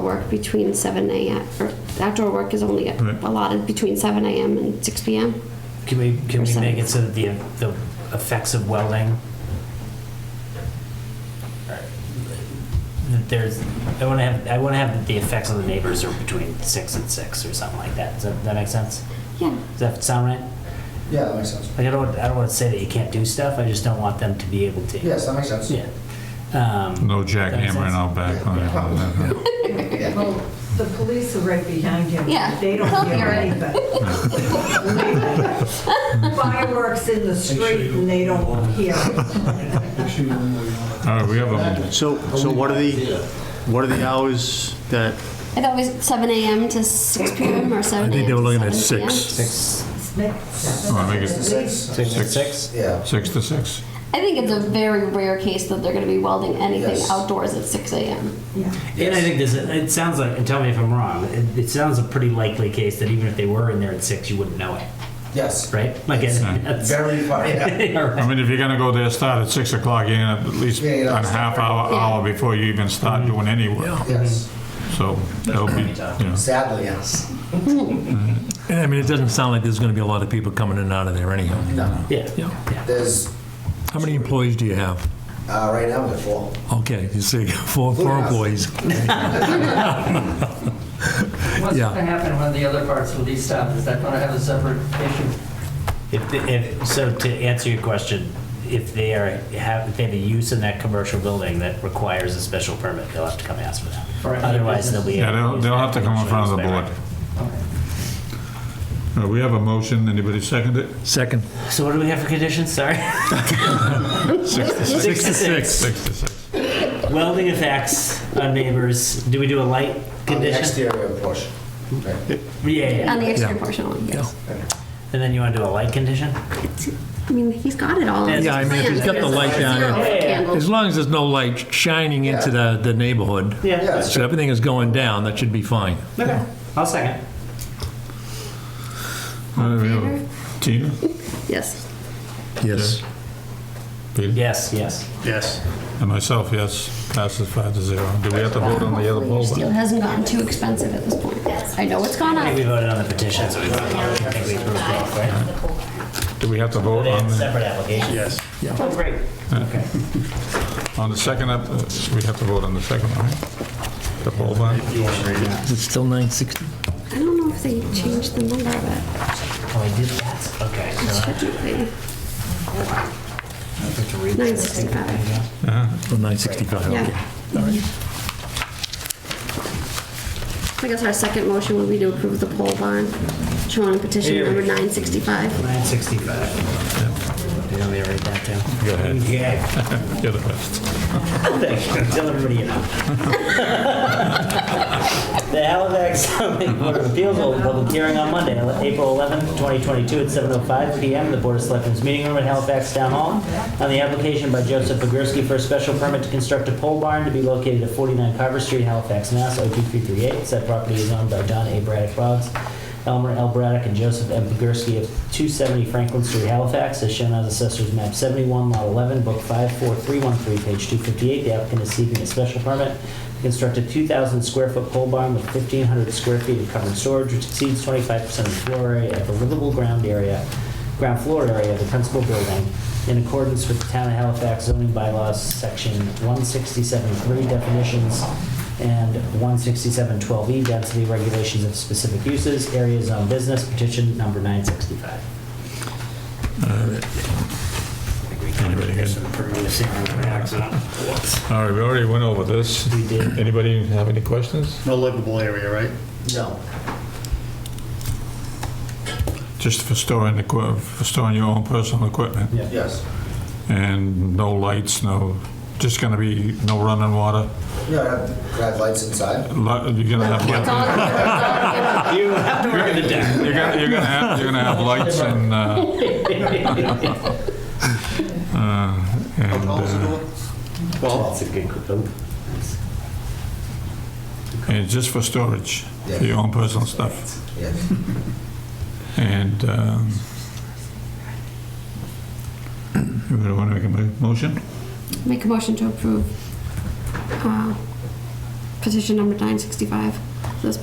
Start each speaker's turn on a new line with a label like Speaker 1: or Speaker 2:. Speaker 1: work between seven a.m. or outdoor work is only
Speaker 2: Right.
Speaker 1: allotted between seven a.m. and six p.m.
Speaker 3: Can we, can we
Speaker 1: Percent.
Speaker 3: make it so that the, the effects of welding? That there's, I wanna have, I wanna have the effects on the neighbors are between six and six or something like that. Does that, that make sense?
Speaker 1: Yeah.
Speaker 3: Does that sound right?
Speaker 4: Yeah, that makes sense.
Speaker 3: Like, I don't, I don't wanna say that you can't do stuff, I just don't want them to be able to.
Speaker 4: Yes, that makes sense.
Speaker 3: Yeah. Um,
Speaker 2: No
Speaker 3: That makes
Speaker 2: jackhammering
Speaker 3: sense.
Speaker 2: out back on it. on that,
Speaker 5: Well, the police are right behind him.
Speaker 1: Yeah,
Speaker 5: They
Speaker 1: they'll
Speaker 5: don't hear
Speaker 1: hear it.
Speaker 5: anything. Fireworks in the street and they don't hear it.
Speaker 2: yeah. All right, we have a,
Speaker 6: So, so what are the, what are the hours that,
Speaker 1: I thought it was seven a.m. to six p.m. or seven.
Speaker 6: I think they were looking at
Speaker 1: 7 p.m.
Speaker 6: six.
Speaker 3: six,
Speaker 5: It's mixed.
Speaker 2: oh, I think it's
Speaker 4: Six,
Speaker 3: six, six?
Speaker 4: yeah.
Speaker 2: six to six.
Speaker 1: I think it's a very rare case that they're going to be welding anything
Speaker 4: Yes.
Speaker 1: outdoors at six a.m.
Speaker 5: Yeah.
Speaker 3: And I think this, it sounds like, and tell me if I'm wrong, it, it sounds a pretty likely case that even if they were in there at six, you wouldn't know it,
Speaker 4: Yes.
Speaker 3: right? Like, it's,
Speaker 2: Yeah.
Speaker 3: that's,
Speaker 4: Very far, yeah.
Speaker 3: all right.
Speaker 2: I mean, if you're gonna go there, start at six o'clock, you're gonna have at least
Speaker 4: Yeah, yeah.
Speaker 2: a half hour, hour before you even start doing any work.
Speaker 4: Yes.
Speaker 2: So that'll be, yeah.
Speaker 4: Sadly, yes.
Speaker 7: I mean, it doesn't sound like there's going to be a lot of people coming in and out of there anyhow.
Speaker 4: No.
Speaker 3: Yeah.
Speaker 7: Yeah.
Speaker 4: There's,
Speaker 7: How many employees do you have?
Speaker 4: uh, right now, we're full.
Speaker 7: Okay, you see, four, four employees.
Speaker 8: What's
Speaker 7: Yeah.
Speaker 8: going to happen when the other parts will be stopped? Is that going to have a separate issue?
Speaker 3: If, the- if, so to answer your question, if they are, have, if they have a use in that commercial building that requires a special permit, they'll have to come ask for
Speaker 8: For
Speaker 3: that.
Speaker 8: any
Speaker 3: Otherwise, they'll
Speaker 8: business.
Speaker 3: be.
Speaker 2: Yeah,
Speaker 3: able
Speaker 2: they'll,
Speaker 3: use
Speaker 2: they'll
Speaker 3: that
Speaker 2: have to come in front of the board.
Speaker 3: commercial
Speaker 2: Uh, We have a motion, anybody second it?
Speaker 7: Second.
Speaker 3: space. So what do we have for conditions? Sorry.
Speaker 2: Six to six.
Speaker 3: Six to six.
Speaker 2: Six to six.
Speaker 3: Welding effects on neighbors. Do we do a light
Speaker 4: On the
Speaker 3: condition?
Speaker 4: exterior portion. Right.
Speaker 3: Yeah, yeah.
Speaker 1: On the exterior
Speaker 7: Yeah.
Speaker 1: portion one, yes.
Speaker 3: And then you want to do a light condition?
Speaker 1: I mean, he's got it all.
Speaker 3: Yeah,
Speaker 7: I mean, if he's got the light down,
Speaker 1: Zero
Speaker 7: yeah.
Speaker 1: candles.
Speaker 7: As long as there's no light shining into the, the neighborhood,
Speaker 3: Yeah.
Speaker 4: Yes.
Speaker 7: so everything is going down, that should be fine.
Speaker 3: Okay. I'll second.
Speaker 2: Uh, we have Tina?
Speaker 1: Yes.
Speaker 7: Yes.
Speaker 2: Peter?
Speaker 3: Yes, yes.
Speaker 6: yes?
Speaker 2: And myself, yes, passes five to zero. Do we have to vote on the other poll?
Speaker 1: Steel hasn't gotten too expensive at this point. I know it's gone
Speaker 3: I think we
Speaker 1: up.
Speaker 3: voted on the petition, so we voted on it. I think we approved both, right?
Speaker 2: Do we have to vote
Speaker 3: They
Speaker 2: on
Speaker 3: had
Speaker 2: the,
Speaker 3: separate applications.
Speaker 6: Yes.
Speaker 3: Oh, great. Okay.
Speaker 2: on the second, up? uh, we have to vote on the second one, right? The poll bond?
Speaker 7: Is it still 960?
Speaker 1: I don't know if they changed the number of
Speaker 3: Oh, I did that? Okay.
Speaker 1: it.
Speaker 3: so-
Speaker 1: Shouldn't
Speaker 3: read
Speaker 1: Nine sixty-five,
Speaker 7: Or 965, Oh, okay.
Speaker 1: yeah. Mm-hmm. I guess our second motion would be to approve the poll bond, showing petition number nine sixty-five.
Speaker 3: 965. Do you want me to read that down?
Speaker 2: Go ahead.
Speaker 3: Okay.
Speaker 2: You're the best.
Speaker 3: Thank you. Tell everybody you know. The Halifax zoning Board of Appeals will hold a public hearing on Monday, April 11th, 2022, at 7:05 PM in the Board of Selectmen's meeting room at Halifax Town Hall on the application by Joseph Pogorski for a special permit to construct a pole barn to be located at 49 Carver Street, Halifax, Mass. 02338. Said property is owned by John A. Braddock Boggs, Elmer L. Braddock, and Joseph M. Pogorski of 270 Franklin Street, Halifax, as shown on Assessor's Map 71, Lot 11, Book 54313, page 258. The applicant is seeking a special permit to construct a 2,000 square foot pole barn with 1,500 square feet of covered storage, which exceeds 25% of the floor area of the livable ground area, ground floor area of the principal building, in accordance with the Town of Halifax zoning bylaws, Section 167.3 definitions and 167.12E E, density regulations of specific uses, area zone business, petition number 965.
Speaker 2: Anybody good? All right, we already went over this.
Speaker 3: We did.
Speaker 2: Anybody have any questions?
Speaker 6: No livable area, right?
Speaker 4: No.
Speaker 2: Just for storing the, equi- for storing your own personal equipment?
Speaker 3: Yeah.
Speaker 4: Yes.
Speaker 2: And no lights, no, just gonna be no running water?
Speaker 4: Yeah, I have to have lights inside.
Speaker 2: Li- You're gonna have,
Speaker 1: It's
Speaker 2: light-
Speaker 1: all-
Speaker 3: You have to work the deck.
Speaker 2: you're gonna, you're gonna have, you're gonna have lights and, uh, uh, and, uh,
Speaker 6: Well,
Speaker 3: That's a good group.
Speaker 2: and just for storage, for your own personal stuff.
Speaker 4: Yes.
Speaker 2: And, um, you wanna make a mo- motion?
Speaker 1: Make a motion to approve uh, petition number 965.